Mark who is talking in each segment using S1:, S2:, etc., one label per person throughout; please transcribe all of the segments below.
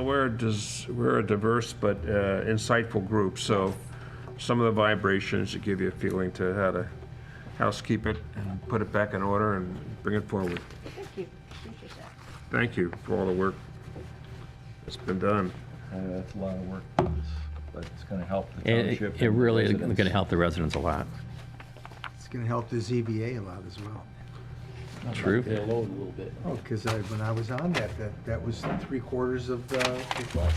S1: we're, dis- we're a diverse but uh, insightful group, so some of the vibrations should give you a feeling to how to housekeep it and put it back in order and bring it forward.
S2: Thank you, appreciate that.
S1: Thank you for all the work that's been done.
S3: I know Uh, that's a lot of work, but it's- but it's going to help the
S4: It,
S3: township.
S4: it
S3: and
S4: really is
S3: residents.
S4: going to help the residents a lot.
S5: It's gonna help the ZBA a lot as well.
S4: True.
S6: They alone a little bit.
S5: Oh, because I, when I was on that, that, that was three quarters of the request.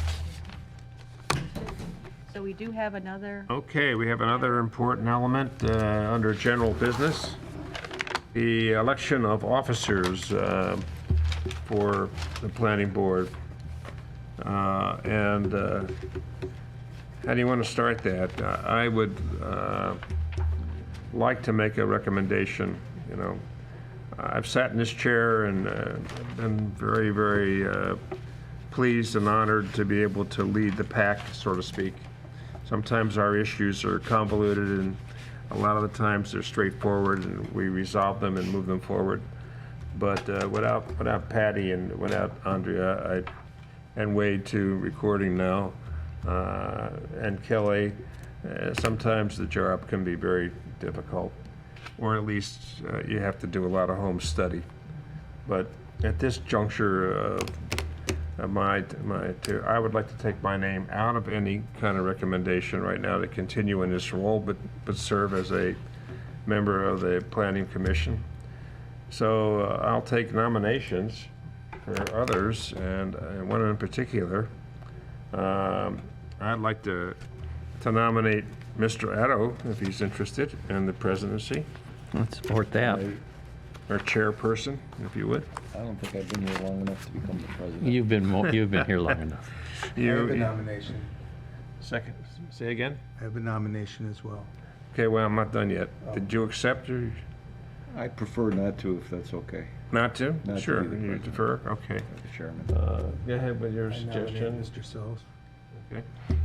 S2: So we do have another,
S1: Okay, we have another important element uh, under general business. The election of officers uh, for the planning board. Uh, And uh, how do you want to start that? I I would uh, like to make a recommendation, you know. I've sat in this chair and uh, been very, very uh, pleased and honored to be able to lead the pack, so to speak. Sometimes our issues are convoluted, and a lot of the times they're straightforward, and we resolve them and move them forward. But uh, without, without Patty and without Andrea, I, and Wade too, recording now, uh, and Kelly, uh, sometimes the job can be very difficult, or at least uh, you have to do a lot of home study. But at this juncture of uh, my, my, to- I would like to take my name out of any kind of recommendation right now to continue in this role, but, but serve as a member of the Planning Commission. So uh, I'll take nominations for others, and uh, one in particular. Um, I'd like to, to nominate Mr. Addo, if he's interested, in the presidency,
S4: Let's support that.
S1: or chairperson, if you would.
S3: I don't think I've been here long enough to become the president.
S4: You've been, mo- you've been here long enough.
S5: I have a
S1: You,
S5: nomination.
S1: second, say again?
S5: I have a nomination as well.
S1: Okay, well, I'm not done yet. Did you accept or?
S3: I prefer not to, if that's okay,
S1: Not to?
S3: Not to
S1: Sure,
S3: be the
S1: you
S3: president.
S1: defer, okay.
S3: Mr. Chairman.
S1: Uh, Go ahead with your
S5: I nominate
S1: suggestion.
S5: Mr. Sells.
S1: Okay.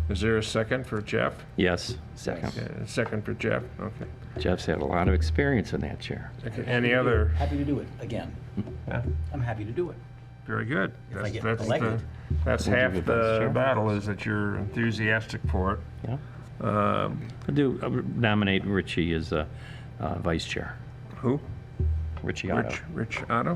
S1: Is there a second for Jeff?
S4: Yes, second.
S1: Okay, a Second for Jeff, okay.
S4: Jeff's had a lot of experience in that chair.
S1: Okay, Any other?
S6: Happy to do it, again.
S1: Yeah,
S6: I'm happy to do it.
S1: Very good.
S6: If I
S1: That's
S6: get
S1: that's the-
S6: elected.
S1: That's
S4: We'll
S1: half
S4: give it vice
S1: the
S4: chair.
S1: battle, is that you're enthusiastic for
S4: Yeah.
S1: it. Um,
S4: I do uh, nominate Richie as uh, uh, vice chair.
S1: Who?
S4: Richie Otto.
S1: Rich, Rich Otto?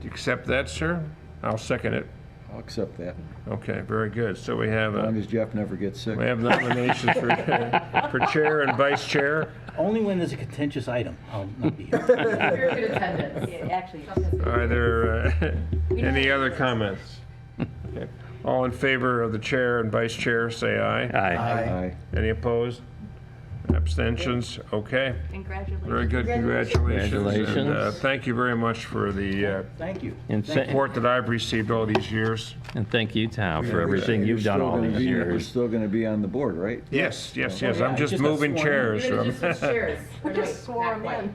S1: Do you accept that, sir? I'll second it.
S3: I'll accept that,
S1: Okay, very good. So we have,
S3: as long
S1: a-
S3: as Jeff never gets sick.
S1: we have nominations for for chair and vice chair.
S6: Only when there's a contentious item, I'll not be here.
S7: Very good attendance.
S2: yeah, actually,
S1: Are there uh, any other comments? Okay. All in favor of the chair and vice chair, say aye.
S4: Aye.
S3: Aye.
S1: Any opposed? Abstentions? Okay,
S2: congratulations.
S1: very good, congratulations. And, uh,
S4: Congratulations.
S1: Thank you very much for the uh,
S6: Thank you.
S4: And
S6: Thank
S4: sa-
S6: you.
S1: support that I've received all these years.
S4: And thank you, Tom, for
S3: You're
S4: everything you've done
S3: still
S4: all
S3: gonna
S4: these
S3: be- You're
S4: years.
S3: still going to be on the board, right?
S1: Yes, yes,
S3: Oh,
S1: yes,
S6: yeah,
S1: I'm just
S6: just got
S1: moving
S6: sworn in.
S1: chairs.
S7: We're gonna
S1: so
S7: just switch chairs. We
S2: just swore 'em in.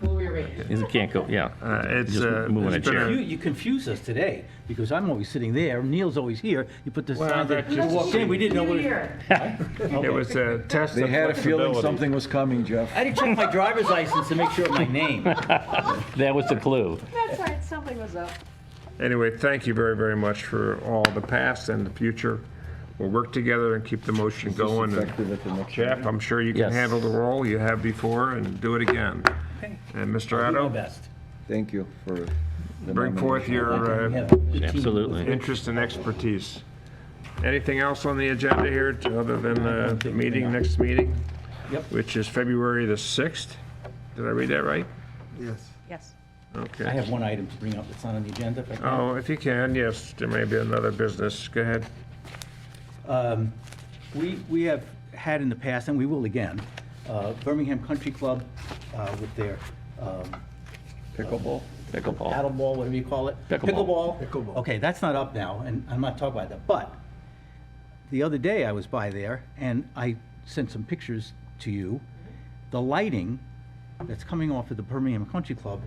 S7: We'll rearrange.
S4: You can't go, yeah.
S1: Uh, It's,
S4: Just
S1: uh,
S4: moving a
S1: it's been
S4: chair.
S6: You, you confuse us today, because I'm always sitting there, Neil's always here, you put this
S1: Well,
S6: sign
S1: that
S6: that you
S1: just-
S6: walked in, we didn't know what it
S7: Here.
S1: it was a test
S3: They
S1: of
S3: had a feeling
S1: flexibility.
S3: something was coming, Jeff.
S6: I had to check my driver's license to make sure of my name.
S4: That was the clue.
S2: That's right, something was up.
S1: Anyway, thank you very, very much for all the past and the future. We'll work together and keep the motion going. and-
S3: Effective at the next
S1: Jeff, I'm sure you can
S4: Yes.
S1: handle the role you have before and do it again.
S6: Okay.
S1: And Mr.
S6: Do my
S1: Otto,
S6: best.
S3: Thank you for the
S1: bring forth
S3: nomination.
S1: your
S6: We
S1: uh,
S6: have a good team.
S4: Absolutely.
S1: interest and expertise. Anything else on the agenda here t- other than uh, the meeting, next meeting?
S6: Yep.
S1: Which is February the 6th? Did I read that right?
S5: Yes.
S2: Yes.
S6: I
S1: Okay.
S6: have one item to bring up that's not on the agenda, if I can.
S1: Oh, if you can, yes, there may be another business. Go ahead.
S6: Um, We, we have had in the past, and we will again, uh, Birmingham Country Club uh, with their um,
S3: Pickleball?
S4: Pickleball.
S6: paddleball, whatever you call it.
S4: Pickleball.
S5: Pickleball.
S6: Okay, that's not up now, and I'm not talking about that. But the other day I was by there, and I sent some pictures to you. The lighting that's coming off of the Birmingham Country Club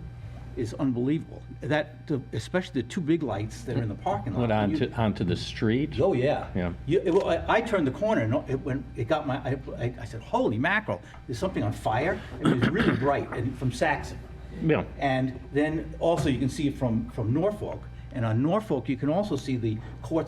S6: is unbelievable. That, the- especially the two big lights that are in the parking lot.
S4: Went
S6: when you-
S4: onto, onto the street.
S6: Oh, yeah.
S4: Yeah.
S6: You, it, well, I, I turned the corner and it, when it got my, I, I, I said, holy mackerel, there's something on fire. And it was really bright and from Saxon.
S4: Yeah.
S6: And then also you can see it from, from Norfolk. And on Norfolk, you can also see the court